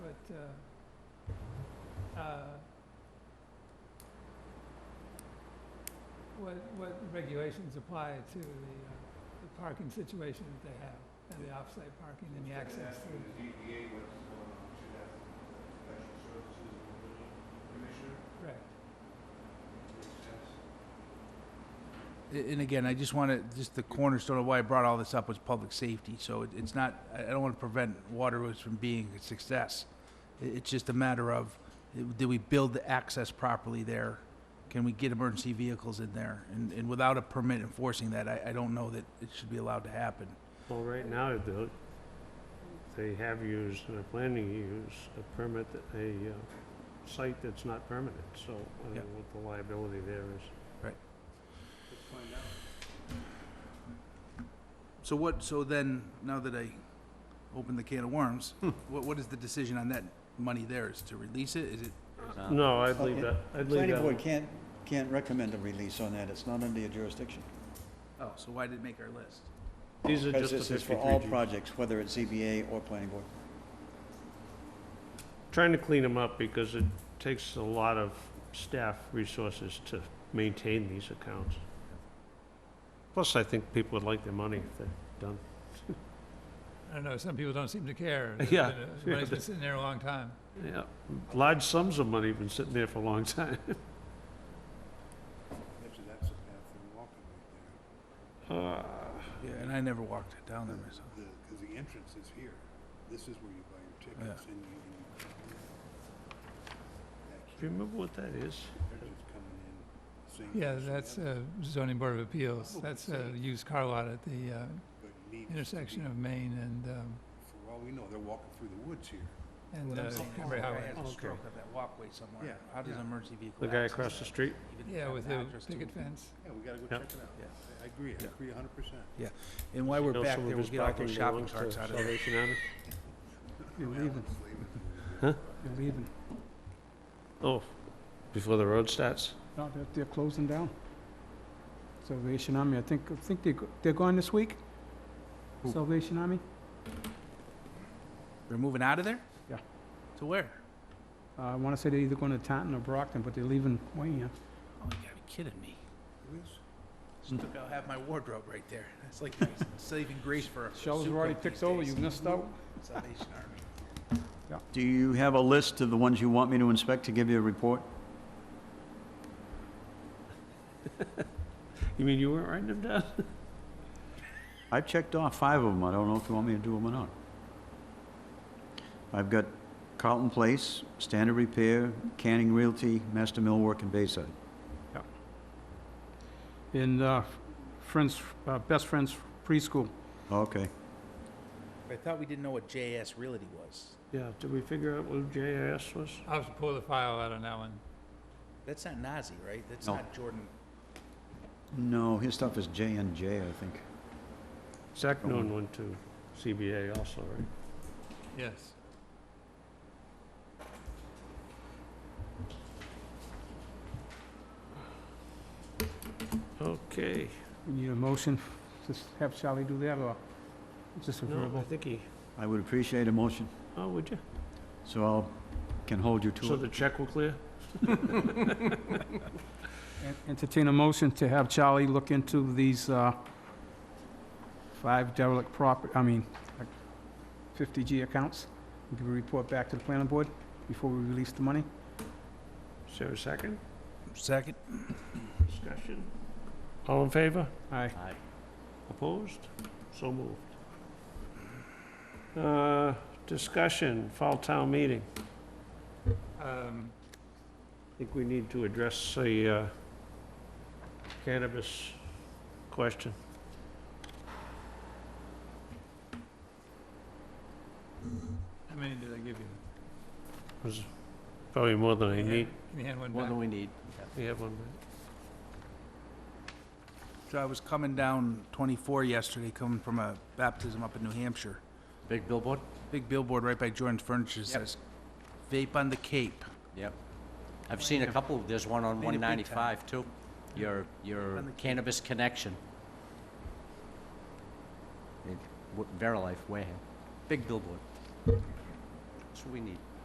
uh, uh, what, what regulations apply to the, uh, the parking situation that they have, and the off-site parking and the access to. The ZBA was the one who should ask the special services and the building commissioner, Right. makes sense. A- And again, I just want to, just the cornerstone of why I brought all this up was public safety, so it- it's not, I I don't want to prevent Waterloo from being a success. I- It's just a matter of, eh, do we build the access properly there? Can we get emergency vehicles in there? And, and without a permit enforcing that, I, I don't know that it should be allowed to happen. Well, right now, the- they have used and are planning to use a permit, that- a uh, site that's not permanent, so I don't Yeah. know what the liability there is. Let's find out. So what, so then, now that I opened the can of worms, what, what is the decision on that money there? Is to release it? Is it, No, I'd leave Okay. that, I'd leave Planning that. board can't, can't recommend a release on that, it's not under your jurisdiction. oh, so why did it make our list? These are Because just the this is for all 53G. projects, whether it's ZBA or planning board. Trying to clean them up because it takes a lot of staff resources to maintain these accounts. Plus, I think people would like their money if they're done. I don't know, some people don't seem to care. Yeah. Uh, Money's been sitting there a long time. Yeah, large sums of money have been sitting there for a long time. Actually, that's a path they're walking right there, Uh, Yeah, and I never walked it down there myself. the, cause the entrance is here, this is where you buy your tickets and you, and you. That Do you key, remember what that is? they're just coming in, saying. Yeah, this and the that's other, uh, zoning board of appeals. Oh, That's a used car lot at the uh, but it needs to intersection be- of Main and, um, For all we know, they're walking through the woods here. and What uh, I'm saying is Cranberry the guy Highway. has a Okay. stroke up that walkway somewhere. Yeah, How does yeah. an emergency vehicle? The guy access across the that? street? Even Yeah, have with an the address to picket it. fence. Yeah, we gotta go Yeah. check it out. Yeah. I agree, I Yeah. agree a hundred percent. And while we're know back some of there, his we'll get all property those shopping belongs to carts out of there. Salvation Army? You're leaving. They're leaving. Oh, before the road starts? No, they're, they're closing down. Salvation Army, I think, I think they, go- they're gone this week? Who? Salvation Army? They're moving out of there? Yeah. To where? Uh, I wanna say they're either going to Taunton or Brockton, but they're leaving Wayne. Oh, you gotta be kidding me. Just took out half my wardrobe right there. That's like saving grace for a Shelves soup are already company picked these over, days. you missed out. Salvation Army. Do you have a list of the ones you want me to inspect to give you a report? You mean you weren't writing them down? I've checked off five of them, I don't know if you want me to do them or not. I've got Carlton Place, Standard Repair, Canning Realty, Master Millwork, and Bayside. And, uh, Friends, uh, Best Friends Preschool, Okay, I thought we didn't know what JS Realty was. Yeah, did we figure out what JIS was? I'll have to pull the file out on that one. That's not Nazi, right? That's No. not Jordan. no, his stuff is J and J, I think. Zach Noon went to CBA also, right? Yes. Okay. we need a motion, just have Charlie do that, or just a No, I verbal? think he, I would appreciate a motion, oh, would you? so I'll, can hold you to it. So the check will clear? En- Entertain a motion to have Charlie look into these, uh, five derelict property, I mean, uh, 50G accounts, and give a report back to the planning board before we release the money. Is there a second? Second. Discussion? All in favor? Aye. Opposed? So moved. Uh, discussion, fall town meeting. Um, I think we need to address the uh, cannabis question. How many did I give you? was probably more than I Can you need. hand- Can you hand one More back? than we need. We have one. So I was coming down 24 yesterday, coming from a baptism up in New Hampshire. Big billboard? Big billboard right by Jordan's Furniture says, vape on the Cape. Yep. I've seen a couple, there's one on Need a big 195 too. Your, your On the- cannabis connection. It- Verilife, Wareham. Big billboard. That's what we need.